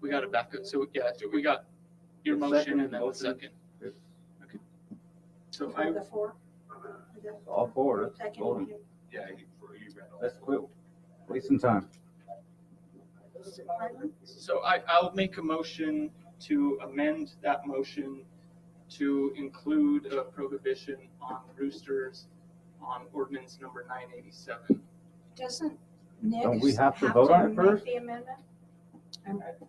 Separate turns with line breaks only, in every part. We got it back up. So, yeah, we got your motion and then the second. Okay. So I,
The four?
All four, that's
Second.
voting.
you-
Yeah, he, he read all.
That's quick. Wasting time.
pardon?
so I, I'll make a motion to amend that motion to include a prohibition on roosters on ordinance number nine eighty-seven.
Doesn't Nick?
Don't we have to vote on it
make
first?
The amendment?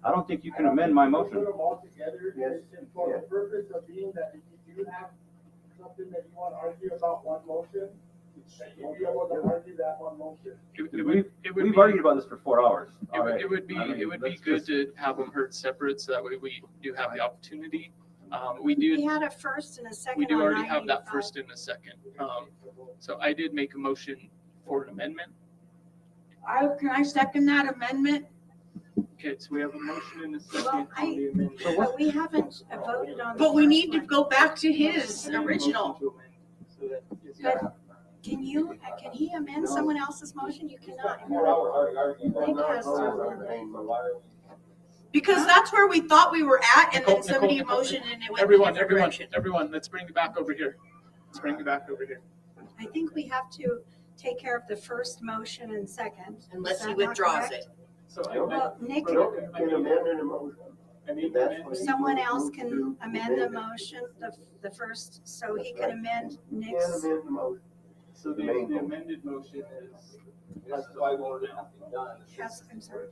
I don't think you can amend my motion.
Put them all together,
Yes.
and for the purpose of being that if you do have something that you wanna argue about one motion, that you be able to argue that one motion.
It it would,
We've,
it would be,
we've argued
it
about this for four hours.
would,
already.
it would be,
I mean,
it would be
let's
good
just-
to have them heard separate, so that way we do have the opportunity. Um, we do.
We had a first and a second.
We do
on
already have that
985.
first and a second. Um, so I did make a motion for an amendment.
I, can I second that amendment?
Okay, so we have a motion and a
Well,
second
I-
on the amendment.
But we haven't uh, voted on. the
But we
first
need to
one.
go back to his
And a motion
original.
to amend, so that it's-
But- Can you, uh, can he amend someone else's motion? You cannot.
Four hours already arguing.
They passed
Because that's where we thought we were at and
Nicole,
then somebody
Nicole, Nicole,
motioned and it went in a
Everyone,
different
everyone,
direction.
everyone, let's bring it back over here. Let's bring it back over here.
I think we have to take care of the first motion and second.
Unless he withdraws it.
So I,
Well, Nick,
I made
That's
an amendment.
someone else can amend the motion, the, the first, so he can amend Nick's.
So the the amended motion is,
That's why we're not done.
Has, I'm sorry,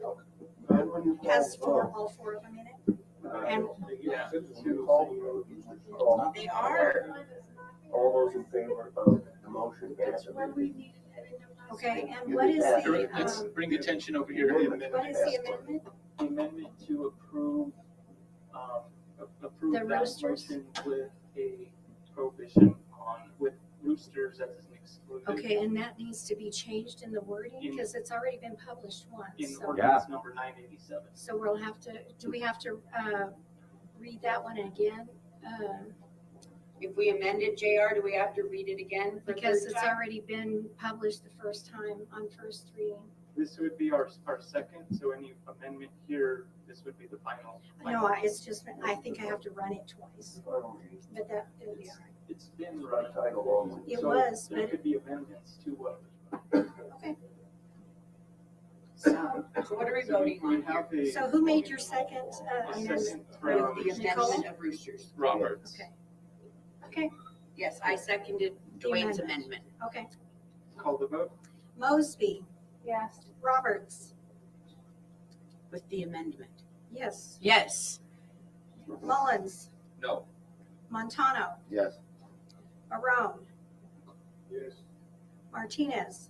has four, all four of them in it? And
yeah,
They are.
All those in favor of the motion, yes,
Okay, and what is the,
let's
um,
bring attention over here.
what is the amendment?
The Amendment to approve, um, a- approve
The
that
roosters?
motion with a prohibition on, with roosters as an exclusion.
Okay, and that needs to be changed in the wording because it's already been published once.
In
So,
ordinance number nine eighty-seven.
so we'll have to, do we have to, uh, read that one again? Um,
If we amended JR, do we have to read it again? for
Because
third
it's
time?
already been published the first time on first reading.
This would be our, our second, so any amendment here, this would be the final.
No, I- it's just, I think I have to run it twice, but that, it'll be all right.
It's been running.
It
So
was,
There
but,
could be amendments to what.
okay.
So
So what are we
so
voting
we
on here?
have a-
So who made your second, uh,
a
amendment?
second
With
from
the amendment
Nicole?
of roosters.
Roberts.
Okay. Okay,
Yes, I seconded Dwayne's amendment.
okay.
Call the vote.
Mosby,
Yes.
Roberts,
With the amendment.
yes.
Yes.
Mullins,
No.
Montano,
Yes.
Marone,
Yes.
Martinez,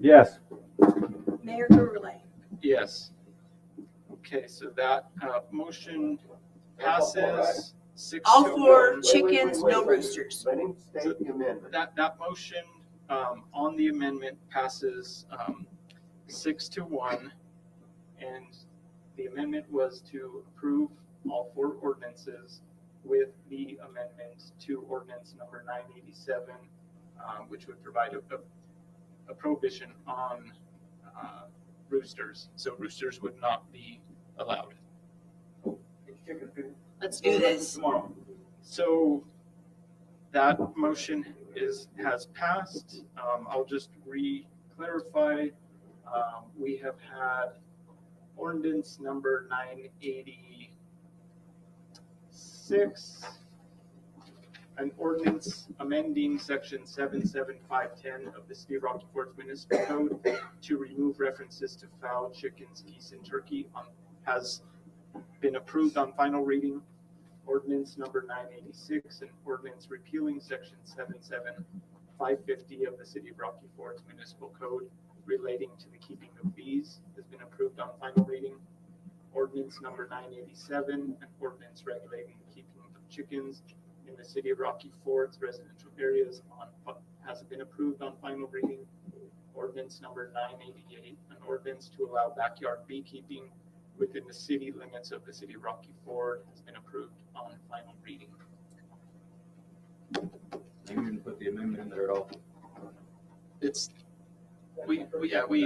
Yes,
Mayor Gurley.
Yes. Okay, so that, uh, motion passes six.
All
to
four
one.
chickens, no roosters.
Let him state the amendment.
That, that motion, um, on the amendment passes, um, six to one. And the amendment was to approve all four ordinances with the amendment to ordinance number nine eighty-seven, um, which would provide a, a- a prohibition on, uh, roosters. So roosters would not be allowed.
Let's do this.
Tomorrow. So that motion is, has passed. Um, I'll just re-clarify. Um, we have had ordinance number nine eighty-six. An ordinance amending section seven seven five ten of the City of Rocky Ford's Municipal Code to remove references to fowl, chickens, geese, and turkey on, has been approved on final reading ordinance number nine eighty-six and ordinance repealing section seven-seven five fifty of the city of Rocky Ford's municipal code relating to the keeping of bees has been approved on final reading. Ordinance number nine eighty-seven and ordinance regulating the keeping of chickens in the city of Rocky Ford's residential areas on, has been approved on final reading. Ordinance number nine eighty-eight, an ordinance to allow backyard beekeeping within the city limits of the city of Rocky Ford has been approved on final reading.
you didn't put the amendment in there at all.
It's, we, we, yeah, we